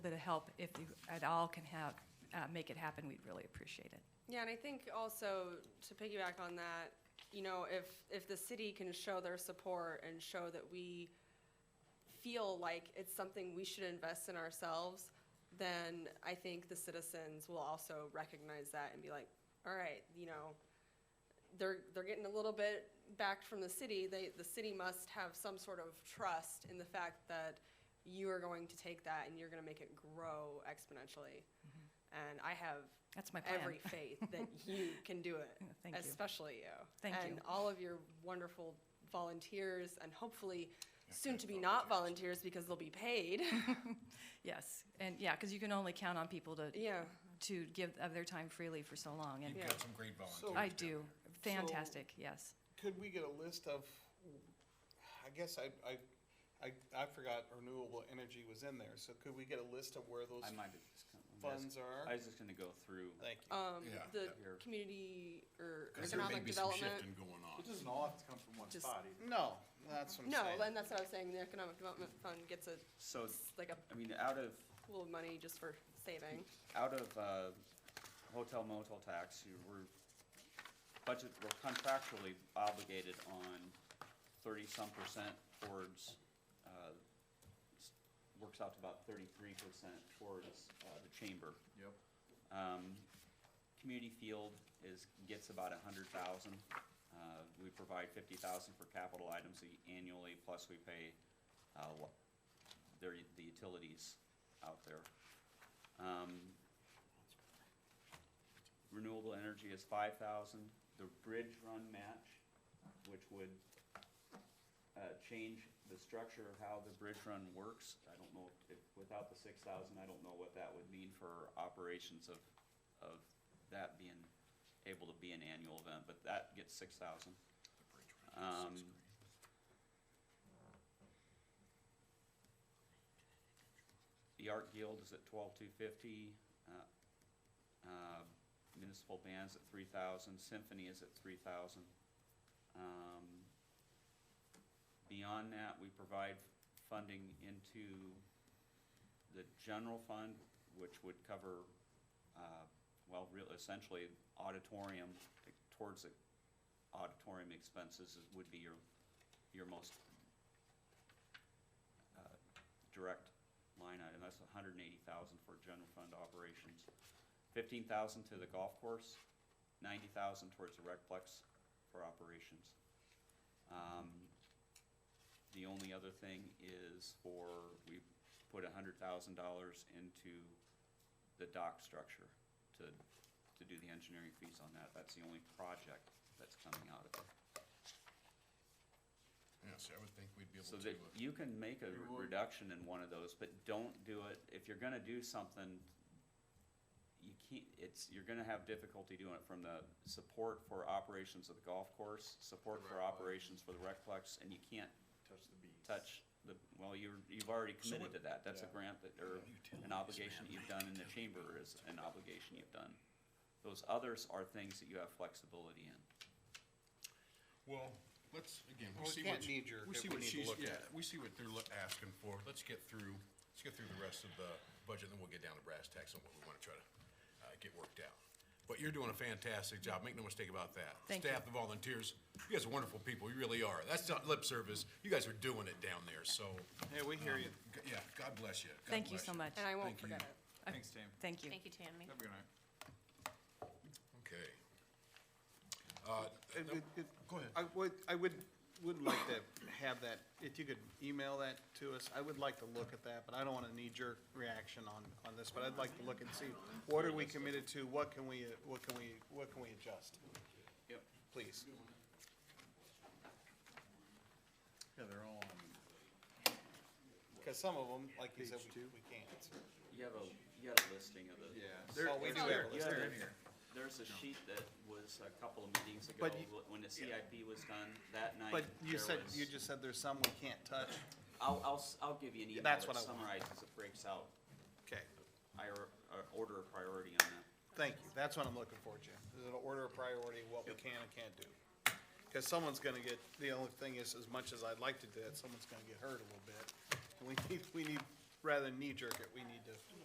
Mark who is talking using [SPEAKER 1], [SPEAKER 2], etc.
[SPEAKER 1] help, if you at all can have, uh, make it happen, we'd really appreciate it.
[SPEAKER 2] Yeah, and I think also to piggyback on that, you know, if, if the city can show their support and show that we feel like it's something we should invest in ourselves, then I think the citizens will also recognize that and be like, all right, you know, they're, they're getting a little bit backed from the city. They, the city must have some sort of trust in the fact that you are going to take that and you're gonna make it grow exponentially. And I have
[SPEAKER 1] That's my plan.
[SPEAKER 2] every faith that you can do it,
[SPEAKER 1] Thank you.
[SPEAKER 2] especially you.
[SPEAKER 1] Thank
[SPEAKER 2] and
[SPEAKER 1] you.
[SPEAKER 2] all of your wonderful volunteers, and hopefully
[SPEAKER 3] Yeah,
[SPEAKER 2] soon
[SPEAKER 3] good
[SPEAKER 2] to be not volunteers because they'll be paid.
[SPEAKER 1] Yes, and yeah, because you can only count on people to,
[SPEAKER 2] yeah,
[SPEAKER 1] to give of their time freely for so long, and
[SPEAKER 2] Yeah.
[SPEAKER 3] You've got some great volunteers.
[SPEAKER 1] I
[SPEAKER 3] down
[SPEAKER 1] do.
[SPEAKER 3] there.
[SPEAKER 1] Fantastic, yes.
[SPEAKER 4] Could we get a list of, I guess I, I, I, I forgot renewable energy was in there, so could we get a list of where those
[SPEAKER 5] I might have just. gonna- I'm
[SPEAKER 4] funds
[SPEAKER 5] just-
[SPEAKER 4] are?
[SPEAKER 5] I was just gonna go through.
[SPEAKER 4] Thank you.
[SPEAKER 2] um,
[SPEAKER 3] Yeah,
[SPEAKER 2] the
[SPEAKER 3] that-
[SPEAKER 5] Here.
[SPEAKER 2] community or
[SPEAKER 3] 'Cause there may
[SPEAKER 2] economic
[SPEAKER 3] be some
[SPEAKER 2] development.
[SPEAKER 3] shifting going on.
[SPEAKER 6] It doesn't all have to come from one
[SPEAKER 2] Just-
[SPEAKER 6] spot either.
[SPEAKER 4] No, that's what I'm
[SPEAKER 2] No,
[SPEAKER 4] saying.
[SPEAKER 2] and that's what I was saying. The economic development fund gets a
[SPEAKER 5] So,
[SPEAKER 2] like a
[SPEAKER 5] I mean, out of,
[SPEAKER 2] pool of money just for saving.
[SPEAKER 5] out of, uh, hotel motel tax, you were budget, we're contractually obligated on thirty-some percent towards, uh, s- works out to about thirty-three percent towards, uh, the chamber.
[SPEAKER 6] Yep.
[SPEAKER 5] Um, Community field is, gets about a hundred thousand. Uh, we provide fifty thousand for capital items a- annually, plus we pay, uh, wa- their, the utilities out there. Um, Renewable energy is five thousand, the bridge run match, which would, uh, change the structure of how the bridge run works. I don't know, if, without the six thousand, I don't know what that would mean for operations of, of that being able to be an annual event, but that gets six thousand.
[SPEAKER 3] The bridge was six
[SPEAKER 5] Um,
[SPEAKER 3] grand.
[SPEAKER 5] The Art Guild is at twelve two fifty, uh, uh, municipal bands at three thousand, symphony is at three thousand. Um, beyond that, we provide funding into the general fund, which would cover, uh, well, real, essentially auditorium, towards the auditorium expenses is- would be your, your most uh, direct line item, that's hundred and eighty thousand for general fund operations. Fifteen thousand to the golf course, ninety thousand towards the recplex for operations. Um, the only other thing is for, we put hundred thousand dollars into the dock structure to, to do the engineering fees on that, that's the only project that's coming out of it.
[SPEAKER 3] Yeah, see, I would think we'd be able
[SPEAKER 5] So
[SPEAKER 3] to.
[SPEAKER 5] that
[SPEAKER 3] uh,
[SPEAKER 5] you can make a
[SPEAKER 6] You
[SPEAKER 5] re-
[SPEAKER 6] would.
[SPEAKER 5] reduction in one of those, but don't do it, if you're gonna do something, you can't, it's, you're gonna have difficulty doing it from the support for operations of the golf course, support for
[SPEAKER 6] Recplex.
[SPEAKER 5] operations for the recplex, and you can't
[SPEAKER 6] Touch the bees.
[SPEAKER 5] touch the, well, you're, you've already committed
[SPEAKER 3] what-
[SPEAKER 5] to that, that's a
[SPEAKER 6] Yeah.
[SPEAKER 5] grant that, or
[SPEAKER 3] Utilities,
[SPEAKER 5] an obligation
[SPEAKER 3] man,
[SPEAKER 5] you've done, and the chamber is an obligation you've done. Those others are things that you have flexibility in.
[SPEAKER 3] Well, let's, again,
[SPEAKER 4] Well,
[SPEAKER 3] we
[SPEAKER 4] we
[SPEAKER 3] see
[SPEAKER 4] can't
[SPEAKER 3] what,
[SPEAKER 4] knee-jerk
[SPEAKER 3] we
[SPEAKER 4] it.
[SPEAKER 3] see
[SPEAKER 4] We
[SPEAKER 3] what
[SPEAKER 4] need to
[SPEAKER 3] she's,
[SPEAKER 4] look
[SPEAKER 3] yeah,
[SPEAKER 4] at it.
[SPEAKER 3] we see what they're loo- asking for. Let's get through, let's get through the rest of the budget, then we'll get down to brass tacks on what we want to try to uh, get worked out. But you're doing a fantastic job. Make no mistake about that.
[SPEAKER 1] Thank
[SPEAKER 3] Staff, the volunteers, you guys are wonderful people. You really are. That's not lip service. You guys are doing it down there, so.
[SPEAKER 6] Hey, we hear you.
[SPEAKER 3] g- Yeah, God bless you. God
[SPEAKER 1] Thank you
[SPEAKER 3] bless
[SPEAKER 1] so much.
[SPEAKER 2] And I won't
[SPEAKER 3] Thank you.
[SPEAKER 2] forget it.
[SPEAKER 6] Thanks, Tim.
[SPEAKER 1] Thank you.
[SPEAKER 7] Thank you, Tammy.
[SPEAKER 6] Have a good night.
[SPEAKER 3] Okay. Uh,
[SPEAKER 6] It- it- it-
[SPEAKER 3] Go ahead.
[SPEAKER 6] I would, I would, would like to have that, if you could email that to us, I would like to look at that, but I don't want a knee-jerk reaction on, on this, but I'd like to look and see, what are we committed to, what can we, uh, what can we, what can we adjust?
[SPEAKER 5] Yep.
[SPEAKER 6] Please.
[SPEAKER 4] Yeah, they're all on.
[SPEAKER 6] Because some of them, like you said,
[SPEAKER 4] Page
[SPEAKER 6] we,
[SPEAKER 4] two.
[SPEAKER 6] we can't.
[SPEAKER 5] You have a, you got a listing of the.
[SPEAKER 6] There-
[SPEAKER 4] Well, we
[SPEAKER 6] it's
[SPEAKER 4] do
[SPEAKER 6] there.
[SPEAKER 4] have a
[SPEAKER 6] It's
[SPEAKER 4] list.
[SPEAKER 6] there.
[SPEAKER 5] Yeah, There's a sheet that was a couple of meetings ago,
[SPEAKER 6] But you-
[SPEAKER 5] wh- when the CIP was done, that night.
[SPEAKER 6] But you
[SPEAKER 5] there
[SPEAKER 6] said,
[SPEAKER 5] was-
[SPEAKER 6] you just said there's some we can't touch.
[SPEAKER 5] I'll, I'll, s- I'll give you an email that
[SPEAKER 6] That's what I want.
[SPEAKER 5] summarizes, it breaks out,
[SPEAKER 6] Okay,
[SPEAKER 5] I, order of priority on that.
[SPEAKER 6] thank you. That's what I'm looking for, Jim. Is an order of priority, what we can and can't do. Because someone's gonna get, the only thing is, as much as I'd like to do that, someone's gonna get hurt a little bit. And we need, we need, rather than knee jerk it, we need to